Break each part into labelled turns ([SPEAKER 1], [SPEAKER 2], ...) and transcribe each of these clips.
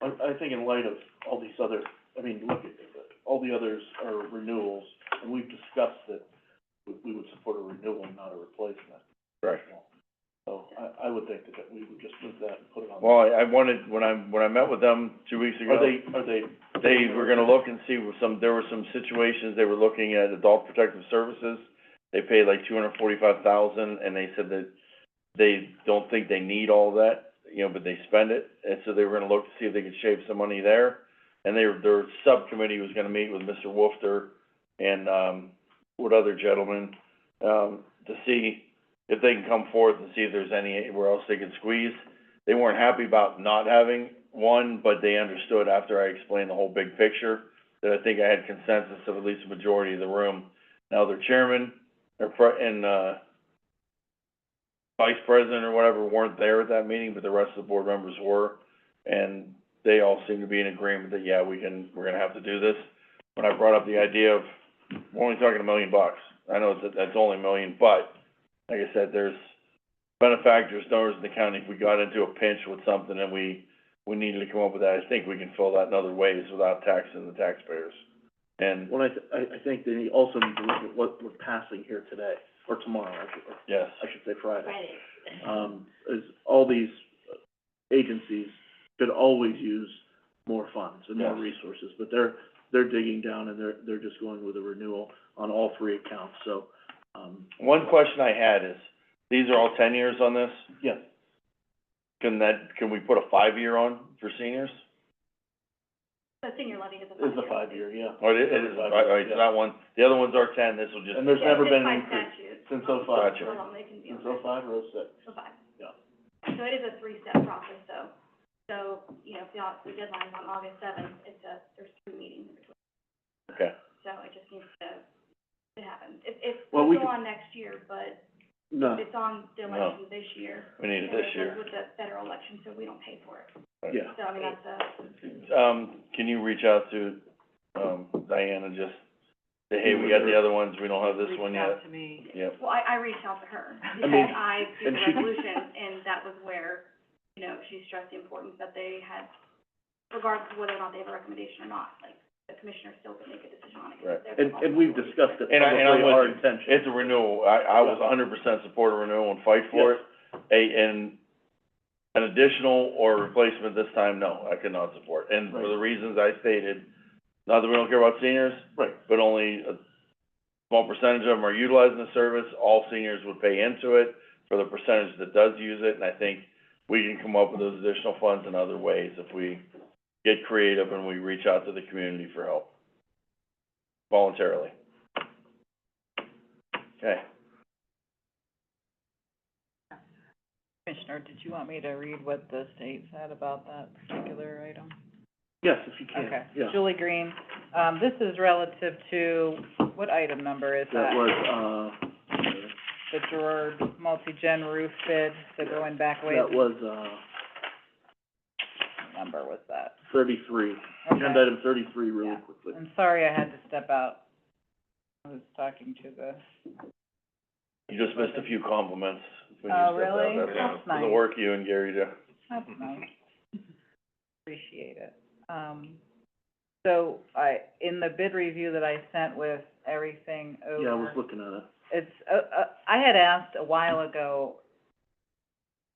[SPEAKER 1] I think in light of all these other, I mean, look, at all the others are renewals, and we've discussed that we, we would support a renewal, not a replacement.
[SPEAKER 2] Right.
[SPEAKER 1] So I, I would think that we would just move that and put it on.
[SPEAKER 2] Well, I I wanted, when I, when I met with them two weeks ago.
[SPEAKER 1] Are they, are they?
[SPEAKER 2] They were gonna look and see with some, there were some situations, they were looking at adult protective services. They paid like two hundred forty-five thousand, and they said that they don't think they need all that, you know, but they spend it. And so they were gonna look to see if they could shave some money there. And they, their subcommittee was gonna meet with Mr. Wolfter and, um, what other gentleman, um, to see if they can come forth and see if there's anywhere else they can squeeze they weren't happy about not having one, but they understood after I explained the whole big picture, that I think I had consensus of at least a majority of the room. Now their chairman, their pre- and, uh, vice president or whatever weren't there at that meeting, but the rest of the board members were. And they all seemed to be in agreement that, yeah, we can, we're gonna have to do this. When I brought up the idea of, we're only talking a million bucks. I know that, that's only a million, but, like I said, there's, benefactors, donors in the county, if we got into a pinch with something and we, we needed to come up with that, I think we can fill that in other ways without taxing the taxpayers. And,
[SPEAKER 1] Well, I, th- I, I think they also need to look at what we're passing here today, or tomorrow, I should, or
[SPEAKER 2] yes,
[SPEAKER 1] I should say Friday.
[SPEAKER 3] Friday.
[SPEAKER 1] um, is all these agencies could always use more funds and more
[SPEAKER 2] Yes.
[SPEAKER 1] resources, but they're, they're digging down and they're, they're just going with a renewal on all three accounts, so, um,
[SPEAKER 2] one question I had is, these are all ten years on this,
[SPEAKER 1] yeah,
[SPEAKER 2] can that, can we put a five-year on for seniors?
[SPEAKER 3] The senior levy is a five-year.
[SPEAKER 1] it's a five-year, yeah.
[SPEAKER 2] Or Oh, it, it is, all right, all right, so that one, the other ones are ten, this will just,
[SPEAKER 1] And there's
[SPEAKER 3] Yeah,
[SPEAKER 1] never
[SPEAKER 3] it's
[SPEAKER 1] been
[SPEAKER 3] by
[SPEAKER 1] an increase
[SPEAKER 3] statute.
[SPEAKER 1] since oh five,
[SPEAKER 2] Gotcha.
[SPEAKER 3] How long they can be
[SPEAKER 1] since
[SPEAKER 3] on
[SPEAKER 1] oh
[SPEAKER 3] it.
[SPEAKER 1] five or oh six.
[SPEAKER 3] So five.
[SPEAKER 1] Yeah.
[SPEAKER 3] So it is a three-step process, though. So, you know, if the, au- the deadline's on August seventh, it's a, there's two meetings in between.
[SPEAKER 2] okay,
[SPEAKER 3] So it just needs to, to happen. It, it's
[SPEAKER 1] Well, we
[SPEAKER 3] still on
[SPEAKER 1] could-
[SPEAKER 3] next year, but
[SPEAKER 1] No,
[SPEAKER 3] it's on the
[SPEAKER 2] No.
[SPEAKER 3] election this year.
[SPEAKER 2] we need it this
[SPEAKER 3] And it
[SPEAKER 2] year.
[SPEAKER 3] was with the federal election, so we don't pay for it.
[SPEAKER 1] yeah,
[SPEAKER 3] So, I mean, that's a,
[SPEAKER 2] Um, can you reach out to, um, Diana, just, say, hey, we got the other ones, we don't have this one yet?
[SPEAKER 4] Reached out to me.
[SPEAKER 2] Yep.
[SPEAKER 3] well, I, I reached out to her
[SPEAKER 4] I
[SPEAKER 3] because
[SPEAKER 1] mean,
[SPEAKER 3] I do
[SPEAKER 1] and
[SPEAKER 3] the
[SPEAKER 1] she-
[SPEAKER 3] resolution, and that was where, you know, she stressed the importance that they had, regardless of whether or not they have a recommendation or not, like, the commissioner still could make a decision on it. 'cause
[SPEAKER 2] Right.
[SPEAKER 3] they're the
[SPEAKER 1] and, and we've
[SPEAKER 3] responsible.
[SPEAKER 1] discussed it
[SPEAKER 2] And I-
[SPEAKER 1] publicly,
[SPEAKER 2] and I'm with
[SPEAKER 1] our
[SPEAKER 2] you.
[SPEAKER 1] intention.
[SPEAKER 2] It's a renewal, I, I was hundred percent support of renewal and fight for it. A, and an additional or replacement this time, no, I could not support. And for the reasons I stated, not that we don't care about seniors,
[SPEAKER 1] Right,
[SPEAKER 2] but only a small percentage of them are utilizing the service. All seniors would pay into it for the percentage that does use it, and I think we can come up with those additional funds in other ways if we get creative and we reach out to the community for help voluntarily. Okay.
[SPEAKER 4] Commissioner, did you want me to read what the state said about that particular item?
[SPEAKER 1] yes, if you can,
[SPEAKER 4] Okay.
[SPEAKER 1] yeah.
[SPEAKER 4] Julie Green, um, this is relative to, what item number is
[SPEAKER 1] That was, uh,
[SPEAKER 4] The Gerard multi-gen roof bid, so going back way,
[SPEAKER 1] that was, uh,
[SPEAKER 4] what number was that?
[SPEAKER 1] thirty-three,
[SPEAKER 4] Okay.
[SPEAKER 1] agenda item thirty-three really
[SPEAKER 4] Yeah.
[SPEAKER 1] quickly.
[SPEAKER 4] I'm sorry I had to step out. I was talking to the,
[SPEAKER 2] You just missed a few compliments when you
[SPEAKER 4] Oh,
[SPEAKER 2] stepped out,
[SPEAKER 4] really?
[SPEAKER 2] that's all.
[SPEAKER 4] That's
[SPEAKER 2] For the
[SPEAKER 4] nice.
[SPEAKER 2] work you and Gary do.
[SPEAKER 4] that's nice. Appreciate it. Um, so I, in the bid review that I sent with everything over.
[SPEAKER 1] Yeah, I was looking at it.
[SPEAKER 4] it's, uh, uh, I had asked a while ago,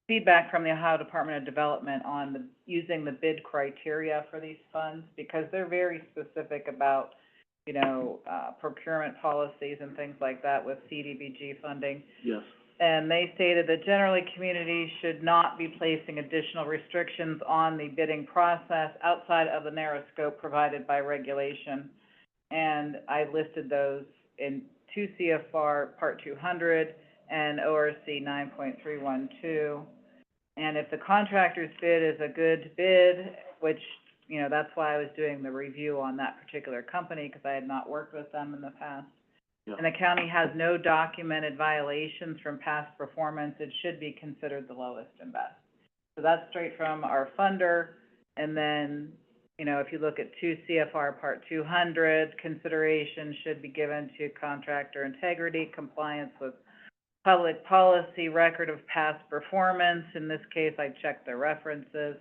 [SPEAKER 4] feedback from the Ohio Department of Development on the, using the bid criteria for these funds, because they're very specific about, you know, uh, procurement policies and things like that with CDBG funding.
[SPEAKER 1] Yes,
[SPEAKER 4] And they stated that generally, communities should not be placing additional restrictions on the bidding process outside of the narrow scope provided by regulation. And I listed those in two CFR Part two hundred and ORC nine point three one two. And if the contractor's bid is a good bid, which, you know, that's why I was doing the review on that particular company, because I had not worked with them in the past.
[SPEAKER 1] Yeah.
[SPEAKER 4] And the county has no documented violations from past performance, it should be considered the lowest and best. So that's straight from our funder, and then, you know, if you look at two CFR Part two hundred, consideration should be given to contractor integrity, compliance with public policy, record of past performance, in this case, I checked the references,